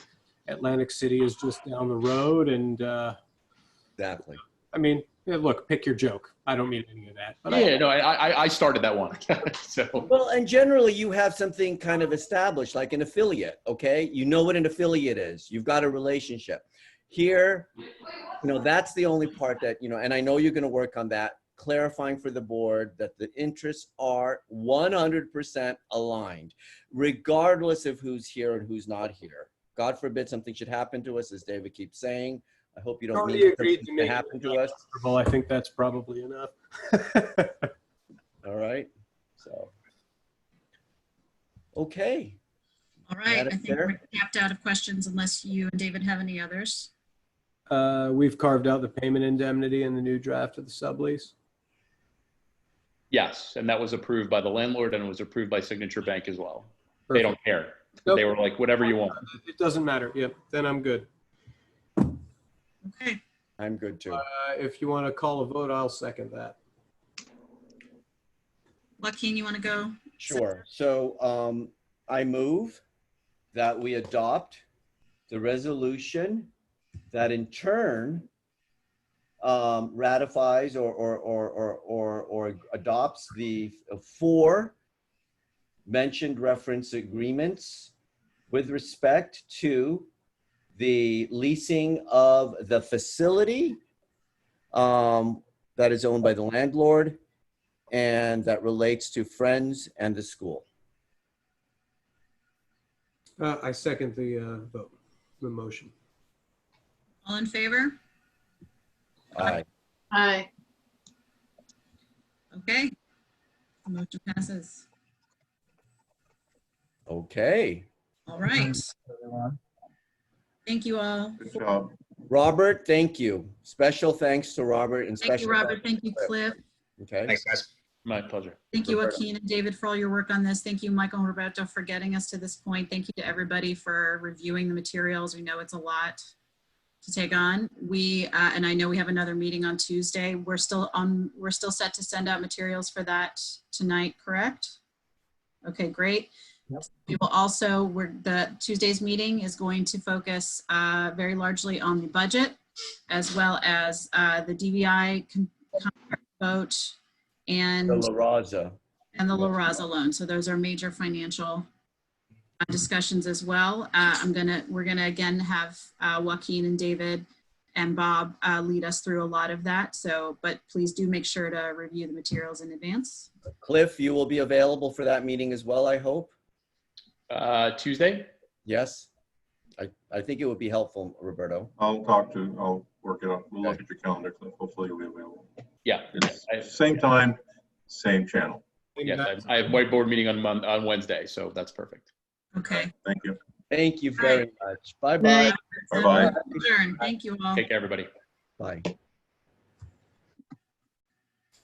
Atlantic City is just down the road. And uh, Exactly. I mean, yeah, look, pick your joke. I don't mean any of that. But I, Yeah, no, I, I, I started that one. so, Well, and generally you have something kind of established, like an affiliate, okay? You know what an affiliate is. You've got a relationship. Here, you know, that's the only part that, you know, and I know you're going to work on that, clarifying for the board that the interests are 100% aligned, regardless of who's here and who's not here. God forbid something should happen to us, as David keeps saying. I hope you don't Already mean agreed something to make to it happen to us, well, I think that's probably enough. all right? So. Okay. All right, I Madam think Chair? we're capped out of questions unless you and David have any others. uh, we've carved out the payment indemnity in the new draft of the sublease. yes, and that was approved by the landlord and it was approved by Signature Bank as well. They don't care. Nope. They were like, whatever you want. It doesn't matter. Yep. Then I'm good. Okay, I'm good too. Uh, if you want to call a vote, I'll second that. Joaquin, you want to go? Sure. So um, I move that we adopt the resolution that in turn um, ratifies or, or, or, or, or, or adopts the four mentioned reference agreements with respect to the leasing of the facility um, that is owned by the landlord and that relates to friends and the school. Uh, I second the uh, vote, the motion. All in favor? Aye. Aye. Okay. The Motion passes. Okay. All right. Thank you all. Good job. Robert, thank you. Special thanks to Robert and Thank special. you, Robert. Thank you, Cliff. Okay. Thanks, guys. My pleasure. Thank you, Roberto. Joaquin and David, for all your work on this. Thank you, Michael and Roberto, for getting us to this point. Thank you to everybody for reviewing the materials. We know it's a lot to take on. We, uh, and I know we have another meeting on Tuesday. We're still on, we're still set to send out materials for that tonight, correct? Okay, great. We will also, we're, the Tuesday's meeting is going to focus uh, very largely on the budget as well as uh, the DVI con- contract vote and The La Raza. and the La Raza loan. So those are major financial uh, discussions as well. Uh, I'm gonna, we're gonna again have uh, Joaquin and David and Bob uh, lead us through a lot of that. So, but please do make sure to review the materials in advance. Cliff, you will be available for that meeting as well, I hope. Uh, Tuesday? Yes. I, I think it would be helpful, Roberto. I'll talk to, I'll work it out. We'll look at your calendar, Cliff. Hopefully you'll be available. Yeah. It's I- Same time, same channel. Yes, I I have whiteboard meeting on Mon, on Wednesday, so that's perfect. Okay. Thank you. Thank you All right. very much. Bye bye. Bye-bye. Adjourn. Thank you all. Take care, everybody. Bye.